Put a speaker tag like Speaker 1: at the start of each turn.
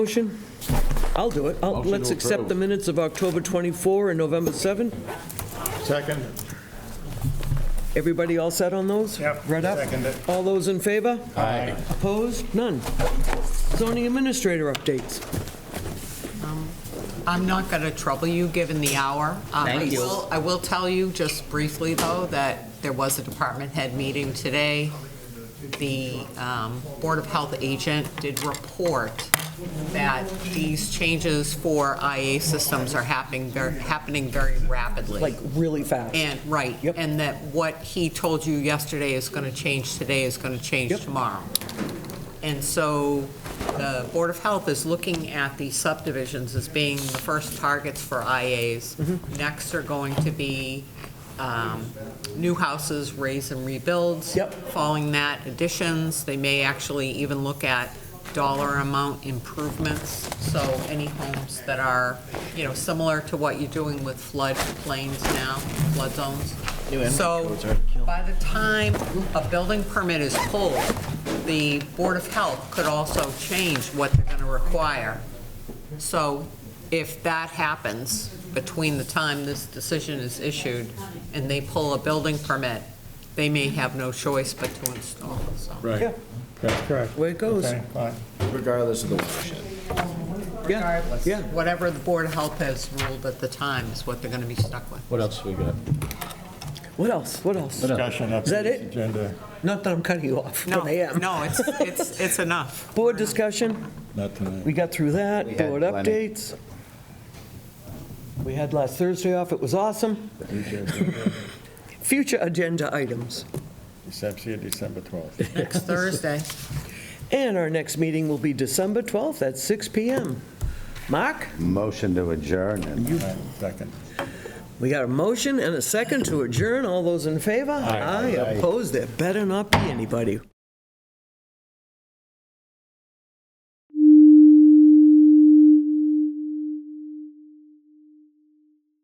Speaker 1: Motion? I'll do it. I'll-
Speaker 2: Motion to
Speaker 1: Let's accept
Speaker 2: approve.
Speaker 1: the minutes of October 24 and November 7.
Speaker 3: Second?
Speaker 1: Everybody all set on those?
Speaker 3: Yep.
Speaker 1: Read up?
Speaker 3: Second it.
Speaker 1: All those in favor?
Speaker 2: Aye.
Speaker 1: Opposed? None. Zoning administrator updates.
Speaker 4: I'm not going to trouble you, given the hour. Um, I
Speaker 5: Thank you.
Speaker 4: will- I will tell you, just briefly, though, that there was a department head meeting today. The um, Board of Health agent did report that these changes for IA systems are happening, they're happening very rapidly.
Speaker 5: like really fast.
Speaker 4: And, right.
Speaker 5: Yep.
Speaker 4: And that what he told you yesterday is going to change today is going to change tomorrow. And so the Board of Health is looking at the subdivisions as being the first targets for IAs. Next are going to be um, new houses, raise and rebuilds.
Speaker 5: Yep.
Speaker 4: Following that, additions. They may actually even look at dollar amount improvements. So any homes that are, you know, similar to what you're doing with floodplains now, flood zones. So by the time a building permit is pulled, the Board of Health could also change what they're going to require. So if that happens between the time this decision is issued and they pull a building permit, they may have no choice but to install, so.
Speaker 2: Right.
Speaker 3: Correct.
Speaker 1: Way it goes.
Speaker 3: Okay, all right.
Speaker 2: Regardless of the watershed.
Speaker 4: Regardless,
Speaker 1: yeah.
Speaker 4: whatever the Board of Health has ruled at the time is what they're going to be stuck with.
Speaker 2: What else we got?
Speaker 1: What else? What else?
Speaker 3: Discussion of
Speaker 1: Is that
Speaker 3: the
Speaker 1: it?
Speaker 3: agenda.
Speaker 1: Not that I'm cutting you off
Speaker 4: No,
Speaker 1: when I am.
Speaker 4: no, it's, it's, it's enough.
Speaker 1: Board discussion,
Speaker 3: Not tonight.
Speaker 1: we got through that.
Speaker 2: We had
Speaker 1: Board
Speaker 2: plenty.
Speaker 1: updates. We had last Thursday off, it was awesome. Future agenda items.
Speaker 3: December, December 12th.
Speaker 4: Next Thursday.
Speaker 1: And our next meeting will be December 12th at 6 PM. Mark?
Speaker 6: Motion to adjourn and
Speaker 3: All right, Second.
Speaker 1: We got a motion and a second to adjourn. All those in favor? Aye. Opposed? There better not be anybody.